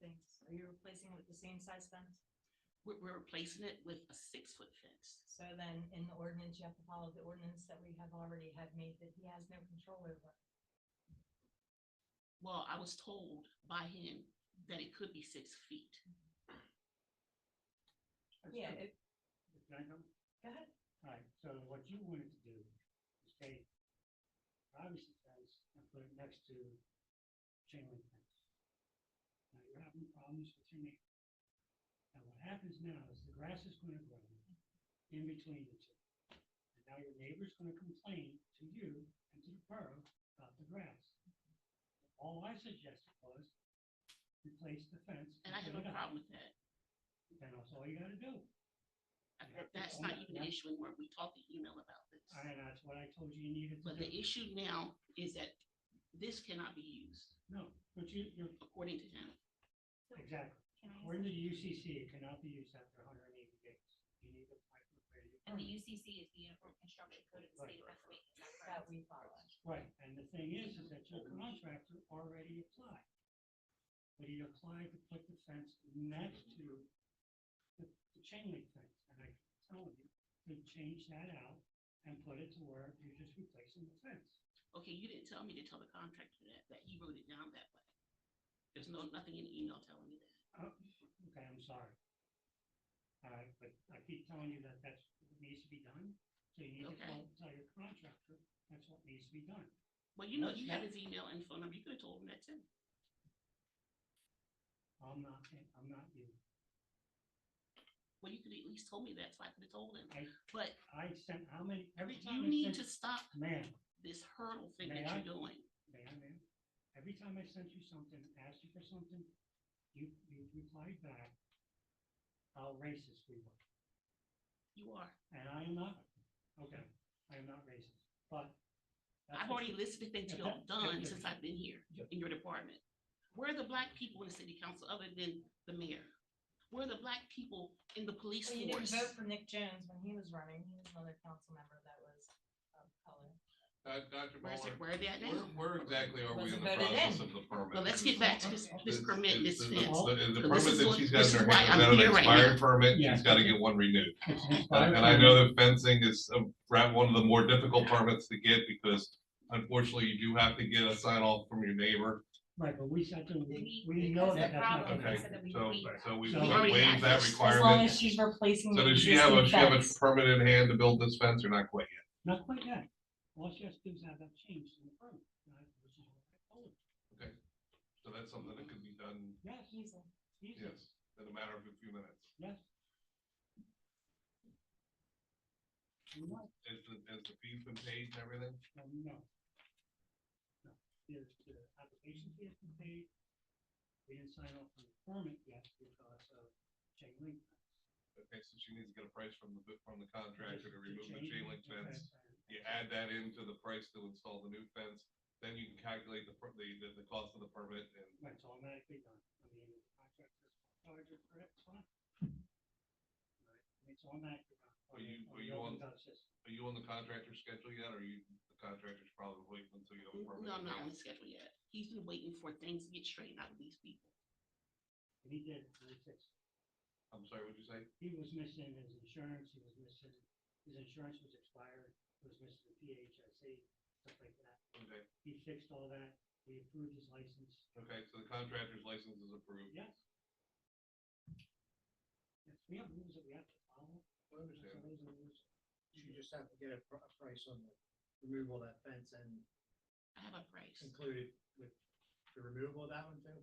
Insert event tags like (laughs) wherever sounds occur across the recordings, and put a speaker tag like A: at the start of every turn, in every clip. A: things? Are you replacing with the same size fence?
B: We're, we're replacing it with a six-foot fence.
A: So then in the ordinance, you have to follow the ordinance that we have already had made that he has no control over.
B: Well, I was told by him that it could be six feet.
A: Yeah, it-
C: Can I come?
A: go ahead.
C: All right, so what you wanted to do is take privacy fence and put it next to chain link fence. Now you're having problems with your neighbor. Now what happens now is the grass is gonna grow in between the two. And now your neighbor's gonna complain to you and to the borough about the grass. All I suggested was replace the fence.
B: And I have
C: put
B: no
C: it up.
B: problem with that.
C: Then that's all you gotta do.
B: I- That's not even an issue anymore. We talked to email about this.
C: And that's what I told you you needed to
B: But the
C: do.
B: issue now is that this cannot be used,
C: No, but you, you're,
B: according to him.
C: exactly.
D: Can I,
C: According to the UCC, it cannot be used after hundred and eighty days. You need to apply for a variety of
D: and the
C: permits.
D: UCC is the Uniform Construction Code of the State of Pennsylvania, is that
A: That
D: correct?
A: we follow.
C: Right, and the thing is, is that your contractor already applied. But he applied to put the fence next to the the chain link fence, and I told you to change that out and put it to where you're just replacing the fence.
B: Okay, you didn't tell me to tell the contractor that, that he wrote it down that way. There's no, nothing in the email telling me that.
C: Oh, okay, I'm sorry. All right, but I keep telling you that that's what needs to be done, so you need to
B: Okay.
C: tell, tell your contractor, that's what needs to be done.
B: Well, you know,
C: Yes,
B: you have
C: ma'am.
B: his email and phone number. You could have told him that too.
C: I'm not, I'm not you.
B: Well, you could at least told me that, so I could have told him.
C: I-
B: But
C: I sent how many, every time
B: you
C: I
B: need to
C: sent,
B: stop
C: ma'am,
B: this hurdle thing
C: May
B: that
C: I?
B: you're doing.
C: ma'am, ma'am, every time I sent you something, asked you for something, you, you replied back how racist we were.
B: You are.
C: And I am not, okay, I am not racist, but. that's
B: I've
C: what-
B: already listed things
C: if
B: you have
C: that- if-
B: done
C: if-
B: since I've been here in your department. Where are the black people in the city council other than the mayor? Where are the black people in the police
A: Well, you didn't
B: force?
A: vote for Nick Jones when he was running. He was another council member that was of color.
E: Uh, Dr.
B: Where's
E: Muller,
B: it, where are they at
E: where,
B: now?
E: where exactly are we
A: Was
E: in
A: it
E: the
A: voted in?
E: process of the permit?
B: Well, let's get back to this, this
E: The-
B: permit,
E: the-
B: this
E: the-
B: fence.
C: Well,
E: The, the
B: this
E: permit
B: is
E: that
B: what-
E: she's
B: this
E: got in
B: is
E: her
B: why
E: hand,
B: I'm
E: is that an
B: here right now.
E: expired permit?
C: Yeah.
E: She's gotta get one renewed.
C: it's
E: (laughs) And
C: inspired
E: and I
C: by-
E: know that fencing is a- ra- one of the more difficult permits to get because unfortunately you do have to get a sign off from your neighbor.
C: Right, but we sent them, we
D: We-
C: we know
D: because the
C: that that's not.
D: problem
C: gonna
E: Okay,
D: is
C: happen.
D: that we
E: so,
D: waive that.
E: so we
C: So- Already
E: waive
B: have
E: that
B: this. As
A: As long as
E: requirement.
A: she's replacing.
E: So
A: the
E: does she have a,
A: existing
E: she have a
A: fence.
E: permit in hand to build this fence or not quite yet?
C: Not quite yet. All she has to do is have that changed in the permit. and I- which is what I told her.
E: So that's something that could be done,
C: Yes,
A: He's a-
C: easy,
E: yes, in a matter of a few minutes.
C: yes. You know,
E: Is the, is the fee been paid and everything?
C: No, no. No, there's the application fee has been paid. We didn't sign off on the permit yet because of chain link. fence.
E: Okay, so she needs to get a price from the, from the contractor to
C: Just
E: remove the chain link fence.
C: and-
E: You add that into the price to install the new fence, then you can calculate the, per- the, the- the cost of the permit and
C: That's automatically done. I mean, the contractor's charged for it, it's fine. Right, and It's automatically done. on
E: Are
C: the-
E: you-
C: on
E: are
C: the
E: you
C: open
E: on-
C: dot system.
E: are you on the contractor's schedule yet? Or you, the contractor's probably waiting until you have a permit?
B: Mm, No,
E: in
B: I'm not on
E: hand?
B: the schedule yet. He's been waiting for things to get straightened out with these people.
C: And he did, it, and he fixed it.
E: I'm sorry, what'd you say?
C: He was missing his insurance, he was missing, his insurance was expired, he was missing the PHIC, E, stuff like that.
E: Okay,
C: He fixed all that. We approved his license.
E: okay, so the contractor's license is approved.
C: Yes. Yes, we have rules that we have to follow.
E: I
C: There's
E: understand.
C: always a rules.
F: You just have to get a pr- a price on the removal of that fence and
B: I have a price.
F: include it with the removal of that one too?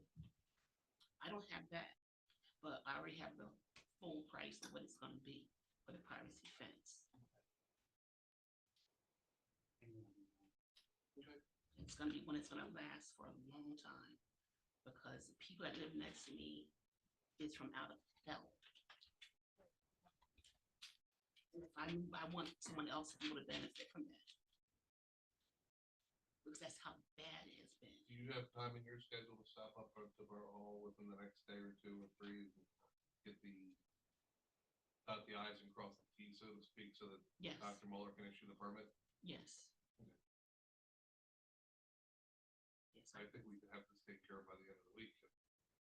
B: I don't have that, but I already have the full price of what it's gonna be for the privacy fence. It's gonna be one that's gonna last for a long time, because the people that live next to me is from out of hell. And if I, move, I want someone else to be able to benefit from that. Because that's how bad it has been.
E: Do you have time in your schedule to stop up at the Borough Hall within the next day or two or three? and Get the, dot the i's and cross the t's, so to speak, so that
B: Yes,
E: Dr. Muller can issue the permit?
B: yes. Yes, I
E: I think we can have this taken care of by the end of the week. I